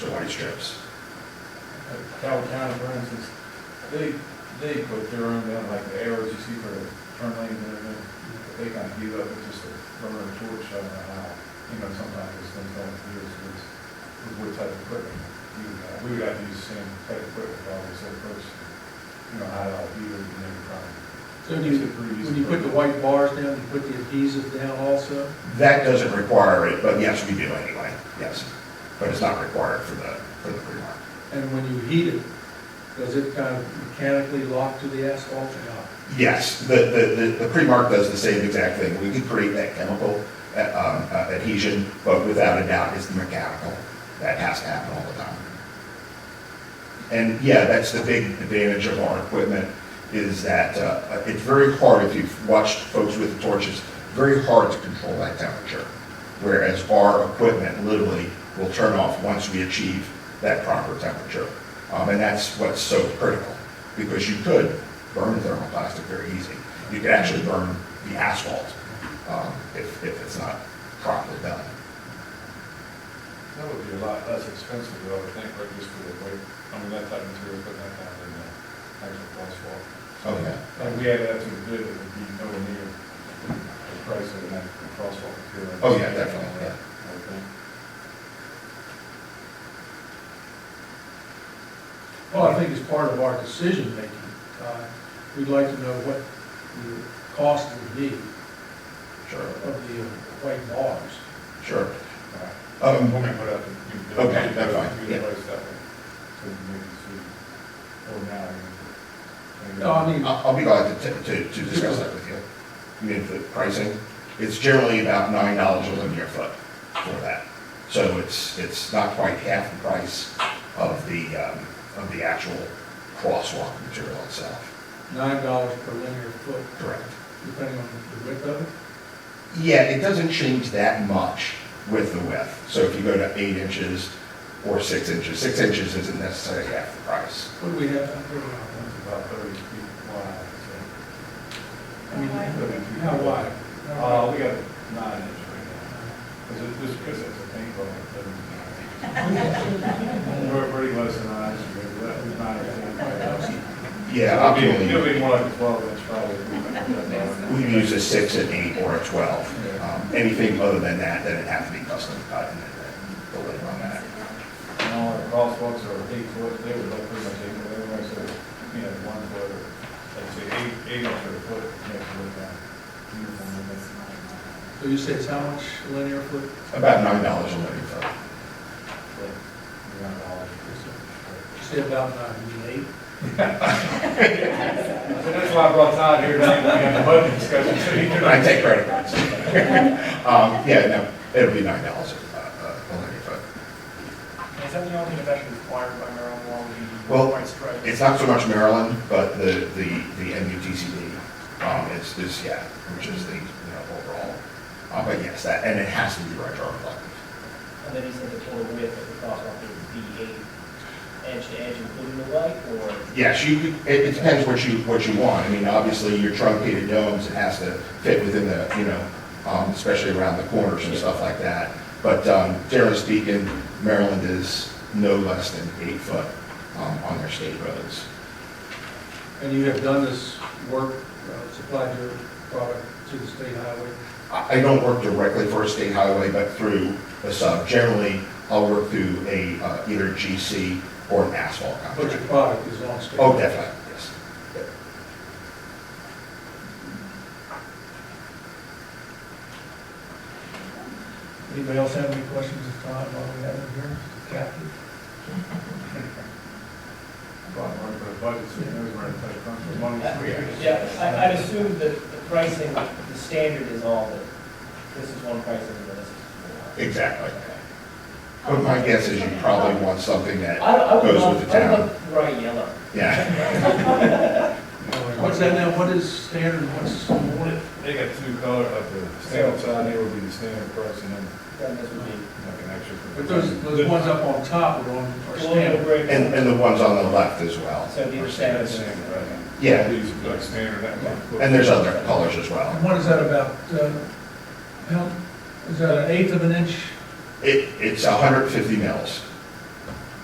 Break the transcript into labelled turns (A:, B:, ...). A: strips.
B: Like Calvin County, for instance, they, they put their own down, like the arrows you see for the turn lanes and everything. but They kind of give up with just a rubber and torch, I don't know how, you know, sometimes those things don't do as good as with what type of equipment. you would have. We would have to use the same type of equipment, probably, so first, you know, how it all be, and then probably.
C: So do you, when you put the white bars down, you put the adhesive down also?
A: That doesn't require it, but yes, we do anyway, yes. But it's not required for the, for the pre-mark.
C: And when you heat it, does it kind of mechanically lock to the asphalt or not?
A: Yes, the, the, the- the pre-mark does the same exact thing. We can create that chemical uh, um, uh, adhesion, but without a doubt, it's the mechanical. That has to happen all the time. And yeah, that's the big advantage of our equipment, is that uh, it's very hard, if you've watched folks with torches, very hard to control that temperature. Whereas our equipment literally will turn off once we achieve that proper temperature. Um, And that's what's so critical, because you could burn thermoplastic very easy. You could actually burn the asphalt um, if, if it's not properly done.
B: That would be a lot less expensive, though, I would think, right, just for the weight, I mean, that type of material, putting that down in the actual asphalt.
A: Oh, yeah.
B: Like, we added that to the bid, it would be nowhere near the price of an actual crosswalk material.
A: Oh, yeah, definitely, yeah.
B: I would think.
C: Well, I think as part of our decision-making, uh, we'd like to know what the cost would be
A: Sure,
C: of the uh, white bars.
A: sure.
B: All right.
A: Um,
B: We'll put up, you can.
A: Okay, that's fine,
B: You
A: yeah.
B: can price that one, so you can make a decision, or now. you can-
C: No, I mean-
A: I'll I'll be glad to, to, to discuss that with you. I mean, the pricing, it's generally about nine dollars a linear foot for that. So it's, it's not quite half the price of the, um, of the actual crosswalk material itself.
C: Nine dollars per linear foot,
A: Correct.
C: depending on the width of it.
A: Yeah, it doesn't change that much with the width. So if you go to eight inches or six inches, six inches isn't necessarily half the price.
C: What do we have out there now?
B: It's about thirty feet wide, so.
C: I mean, how wide? How
B: Uh,
C: wide?
B: we got nine inch right now. Cause it, just cause it's a paintball, it doesn't. We're pretty close to nine inch, but that was nine or ten, probably helps.
A: Yeah,
B: It'll
A: optimally,
B: be more like a twelve inch probably.
A: we use a six, an eight, or a twelve.
B: Yeah.
A: Um, Anything other than that, then it'd have to be custom cut and then the labor on that.
B: And all our crosswalks are eight foot, they were like pretty much eight foot, everybody said, you know, one foot or, let's say eight, eight inch or a foot, you have to look down. Uniform, and that's-
C: So you say it's how much linear foot?
A: About nine dollars a linear foot.
B: but around a dollar or so.
C: You say about nine, you mean eight?
B: So that's why I brought Todd here tonight, we have a budget discussion, so he can.
A: I take credit cards. Um, Yeah, no, it'll be nine dollars a linear foot.
D: Is that the only thing that's required by Maryland law,
A: Well,
D: the white stripes?
A: It's not so much Maryland, but the, the, the MUTCD, um, is, is, yeah, which is the, you know, overall. Uh, but yes, that, and it has to be retroactive.
E: And then he said the total width of the crosswalk would be eight, edge to edge, including the light, or?
A: Yes, you, could- it, it depends what you, what you want. I mean, obviously, your truncated domes, it has to fit within the, you know, um, especially around the corners and stuff like that. But, um, generally speaking, Maryland is no less than eight foot, um, on their state roads.
C: And you have done this work, uh, supplied your product to the state highway?
A: I, I don't work directly for a state highway, but through a sub. Generally, I'll work through a, uh, either GC or an asphalt
C: But your
A: contract.
C: product is on state?
A: Oh, definitely, yes.
C: Anybody else have any questions at time while we have it here? Kathy?
B: Bottom line for the budget, so he knows where to take funds for money.
E: Yeah, I, I'd assume that the pricing, the standard is all that this is one price and this is
A: Exactly. But my guess is you probably want something that
E: four. I, don't- I would
A: goes with
E: love,
A: the
E: I would
A: town.
E: love bright yellow.
A: Yeah,
C: What's that now, what is standard, what's, what?
B: They got two color, like the standard side, they would be the standard price, and then
E: Then this would be
B: like an extra.
C: But those, those ones up on top are on, are
E: colonial
C: standard.
E: gray.
A: and, and the ones on the left as well.
E: So the
A: are
E: standard.
B: Standard, right?
A: Yeah.
B: These, like standard, that one.
A: And there's other colors as
C: And
A: well.
C: what is that about, uh, how, is that an eighth of an inch?
A: It, it's 150 mils.